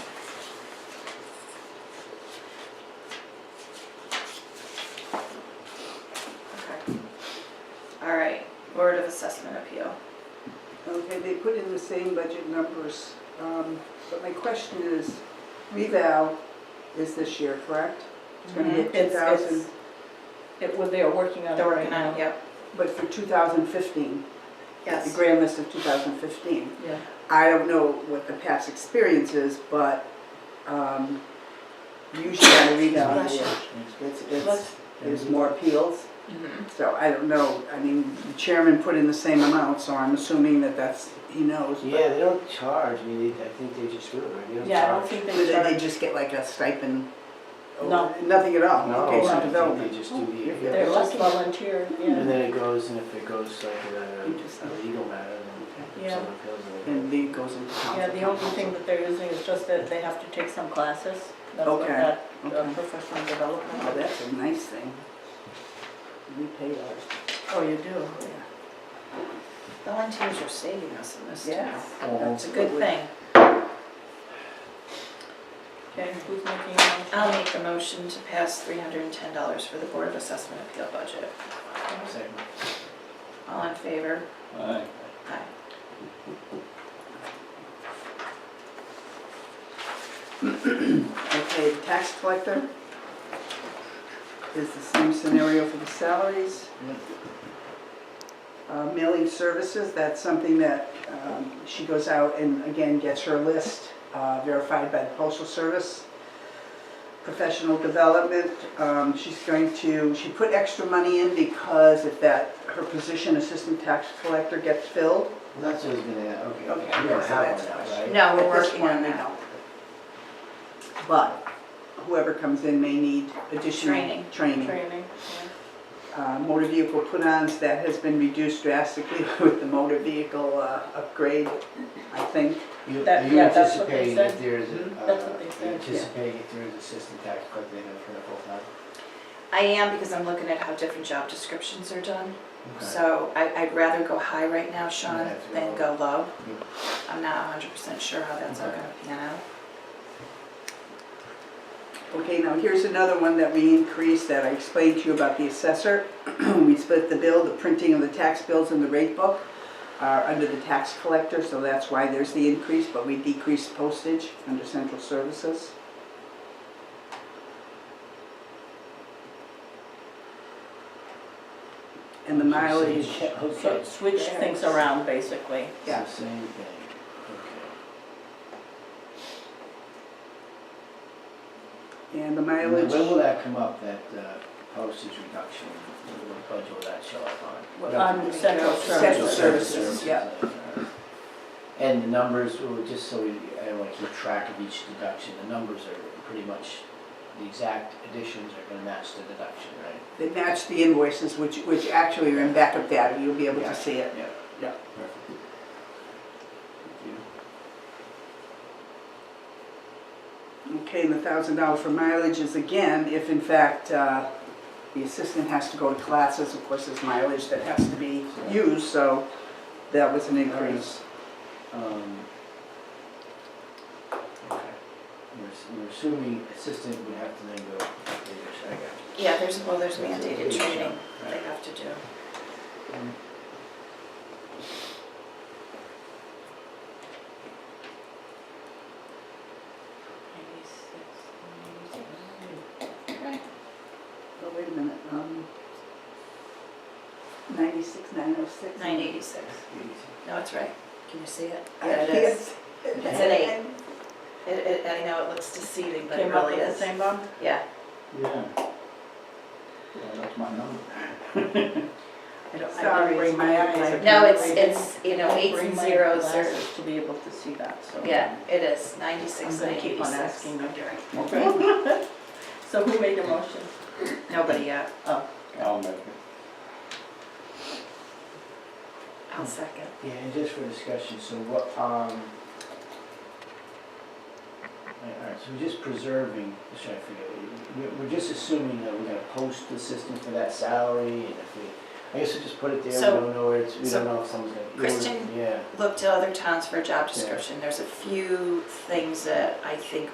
Okay, they put in the same budget numbers, um, but my question is, revow is this year, correct? It's gonna be at two Mm-hmm. It's- it's- thousand, It, well, they are working on it They're right working on now. it, yep, but for two thousand fifteen, the yes. grand list of two thousand fifteen. Yeah. I don't know what the past experience is, but, um, usually on a revow, Bless you. it's, it's, there's more appeals. Mhm. So I don't know, I mean, the chairman put in the same amount, so I'm assuming that that's, he knows. but- Yeah, they don't charge, I mean, they- I think they just do it, right? They don't Yeah, I don't charge. think Did they they charge, just get like a stipend? No. Oh, Nothing at all? No, Okay, so I think development. they just do the, if they're it- less volunteer, and yeah. then it goes, and if it goes like a You just- a legal matter, then Yeah. someone feels it. And lead goes into council. Yeah, the only thing that they're using is just that they have to take some classes. That's what Okay, that uh, okay. professional Oh, development. that's a nice thing. We pay ours. Oh, you do? Volunteers are saving us in this town. That's It's a good thing. Okay, who's making uh, a I'll motion? make the motion to pass three hundred and ten dollars for the Board of Assessment Appeal budget. Second. All in favor? Aye. Aye. Okay, tax collector is the same scenario for the salaries. Uh, Mailing services, that's something that um, she goes out and again gets her list uh, verified by the postal service. Professional development, um, she's going to, she put extra money in because if that, her position assistant tax collector gets filled. That's what I was gonna, okay. Okay, You don't so have that's one, not- right? No, we're At this working on point, we that. don't. But whoever comes in may need additional Training. training. Training, Uh, Motor vehicle put-ons, that has been reduced drastically with the motor vehicle uh, upgrade, I think. You- That- Are you yeah, that's what they anticipating that said. there is, a- Mhm, uh, that's what they said, you yeah. anticipating if there is assistant tax collector in it for the full time? I am because I'm looking at how different job descriptions are done. So I, I'd rather go high right now, Sean, Yeah, it's than go low. low. Yeah. I'm not hundred percent sure how that's all Okay. gonna pan out. Okay, now here's another one that we increased that I explained to you about the assessor. We split the bill, the printing of the tax bills and the rate book are under the tax collector, so that's why there's the increase, but we decreased postage under central services. And the mileage, so Okay. switch things around, basically. yeah. It's the same thing, okay. and the And then mileage, When will that come up, that uh, postage reduction, what budget will that show up on? On central Central services. Um, services. yeah. And the numbers, well, just so we, I don't wanna keep track of each deduction, the numbers are pretty much, the exact additions are gonna match the deduction, right? they match the invoices, which, which actually are in backup data, you'll be able to see it. Yeah. Yeah. Perfect. Thank you. Okay, and the thousand dollar for mileage is again, if in fact, uh, the assistant has to go to classes, of course, there's mileage that has to be used, so that was an increase. Um, Okay. We're ass- We're assuming assistant would have to then go, I got you. Yeah, there's, well, there's mandated Yeah. training Right. they have to do. Oh, wait a minute, um, ninety-six, nine oh six? Nine eighty-six. No, it's right. Can you see it? Yeah, it is. Yes. It's an eight. It, it, I know it looks deceiving, but it Came up really with the is. same, Bob? Yeah, Yeah. Yeah, that's my number. I don't- I didn't Sorry, bring it's my eyes. I didn't no, it's, bring- it's, you know, I didn't eights and bring my zeros are, glasses To be able to see that, so. yeah, it is, ninety-six, I'm and gonna keep on 86. asking you. Okay, So who made the motion? Nobody yet, Oh, I'll make it. I'll second. Yeah, and just for discussion, so what, um, all right, so we're just preserving, just trying to figure, out, we're- we're just assuming that we're gonna post the system for that salary, and if we, I guess we just put it there, we So- don't know where it's, we so don't know if someone's gonna. Kristen- Yeah. Look to other towns for a job description. There's a few things that I think